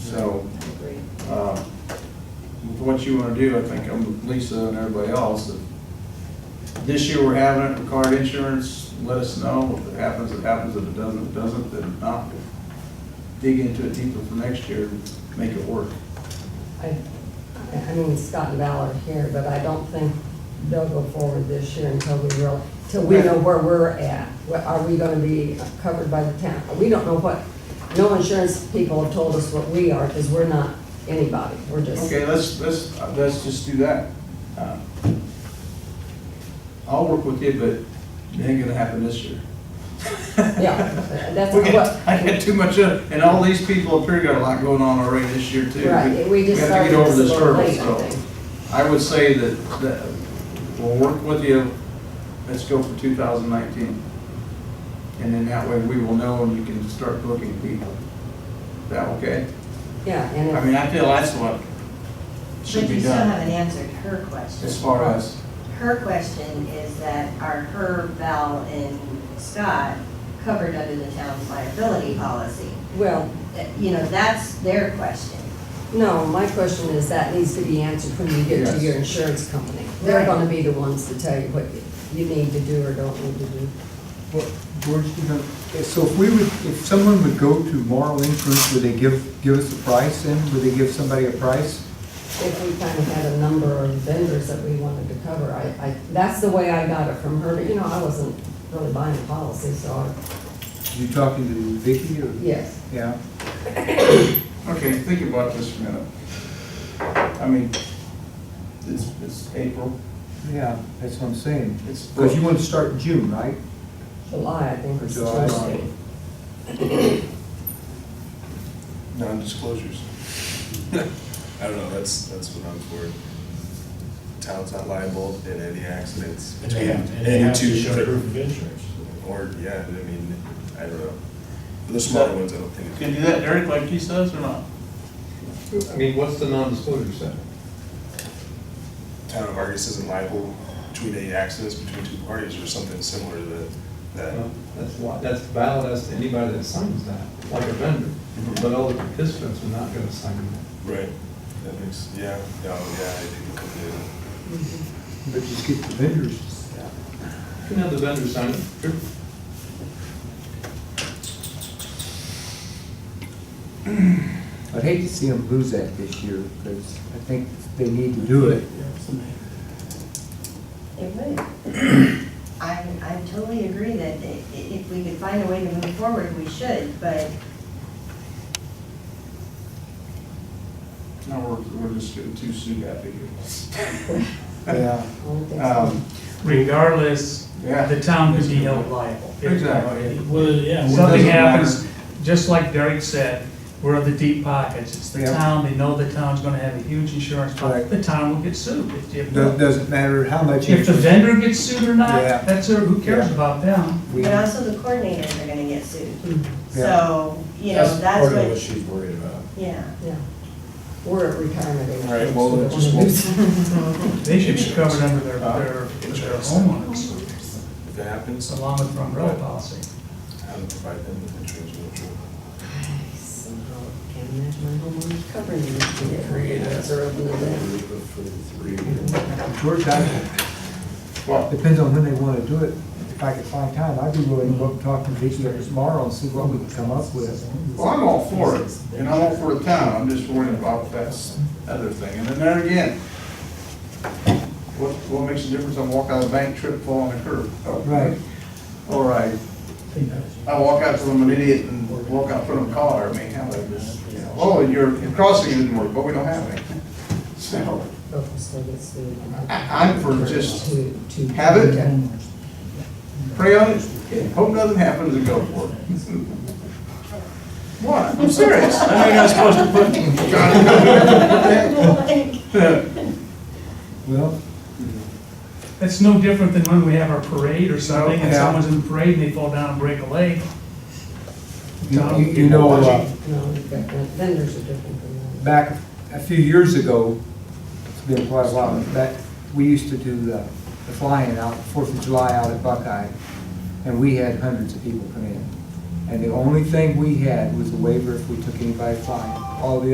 So, I agree. um, with what you wanna do, I think I'm with Lisa and everybody else, if this year we're having it for car insurance, let us know, if it happens, it happens, if it doesn't, it doesn't, then not. Dig into it deeper for next year, and make it work. I, I- I mean, Scott and Val are here, but I don't think they'll go forward this year until we real, till we know where we're at. What- Are we gonna be covered by the town? We don't know what, no insurance people have told us what we are, because we're not anybody, we're just. Okay, let's, let's, uh, let's just do that. Uh, I'll work with you, but it ain't gonna happen this year. Yeah, that's We what- got, I got too much, of- and all these people up here got a lot going on already this year too. Right, we just have to started get over this this a little hurdle. late, I so. think. I would say that, that, we'll work with you, let's go for two thousand nineteen. And then that way we will know and you can start looking at people. Is that okay? Yeah, and I if, mean, I feel that's what But should you be still done haven't answered her question. as far as, Her question is that are her, Val, and Scott covered under the town's liability policy? well, Uh, You know, that's their question. no, my question is that needs to be answered when you get to Yes. your insurance company. They're Right. gonna be the ones to tell you what you need to do or don't need to do. Well, George, you know, so if we would, if someone would go to moral inference, would they give, give us a price then? Would they give somebody a price? if we kind of had a number of vendors that we wanted to cover, I, I, that's the way I got it from her, but you know, I wasn't really buying the policy, so I, You talking to Vicky or? yes. Yeah, okay, think about this for a minute. I mean, it's, it's April, yeah, that's what I'm saying. it's. Because you want to start in June, right? July, I think was the July. first date. Non-disclosures. I don't know, that's, that's what I'm for. Town's not liable in any accidents. And they have, between and they have to two- show proof of insurance. Or, yeah, I mean, I don't know. The smaller ones, I don't think. Can you do that, Derek, like he says, or not? I mean, what's the non-disclosure set? Town of Argus isn't liable between any accidents between two parties or something similar to that- that. Well, That's li- that's valid as to anybody that signs that, like a vendor, but all the participants are not gonna sign that. Right. That makes, yeah, oh, yeah, I think it could be. But just get the vendors. You can have the vendor sign it, sure. I'd hate to see them lose that this year because I think they need to do it. It would. I, I totally agree that i- i- if we could find a way to move forward, we should, but No, we're, we're just getting too soon happy here. Yeah. I don't think so. Um, regardless, Yeah. the town could be held liable. If- Exactly. Well, yeah, well, It doesn't Something matter. happens, just like Derek said, we're in the deep pockets, it's the Yeah. town, they know the town's gonna have a huge insurance policy, Right. the town will get sued. If- if- Do- Doesn't matter how much. If the vendor gets sued or not, Yeah. that's, their- who cares Yeah. about them? We- But also the coordinators are gonna get sued. Yeah. So, you know, that's Hmm. Part of what what, she's worried about. yeah. Yeah. We're at retirement age. All right, well, so we just don't wanna we'll- lose- They should be covered under their, Uh, their their Insurance. homeowners, If it happens, along with their umbrella policy. how to provide them with insurance. Somehow, I can't imagine my homeowners covering these, the are open to that. George, I, Well, Depends on when they want to do it. If I could find time, I'd be willing to go up and talk to Vicky tomorrow and see what we can come up with. well, I'm all for it, and I'm all for the town, I'm just worried about that other thing, and then there again, what, what makes a difference, I walk out of the bank, trip, fall on the curb? Oh, Right. Or I, I walk out from an idiot and walk out front of a car, I mean, how about this? Oh, your crossing didn't work, but we don't have any. So, Both of us still get sued. I- I'm for just To- to- have it. Okay. pray on it, hope nothing happens and go for it. What, I'm serious. I know you're not supposed to put. Well, That's no different than when we have our parade or something, and Yeah. someone's in the parade and they fall down and break a leg. you- Town you you people know, watching. uh, No, we've got- vendors are different from that. back a few years ago, it's been quite a while, but we used to do the the flying out, Fourth of July out at Buckeye, and we had hundreds of people come in. And the only thing we had was a waiver if we took anybody flying. All the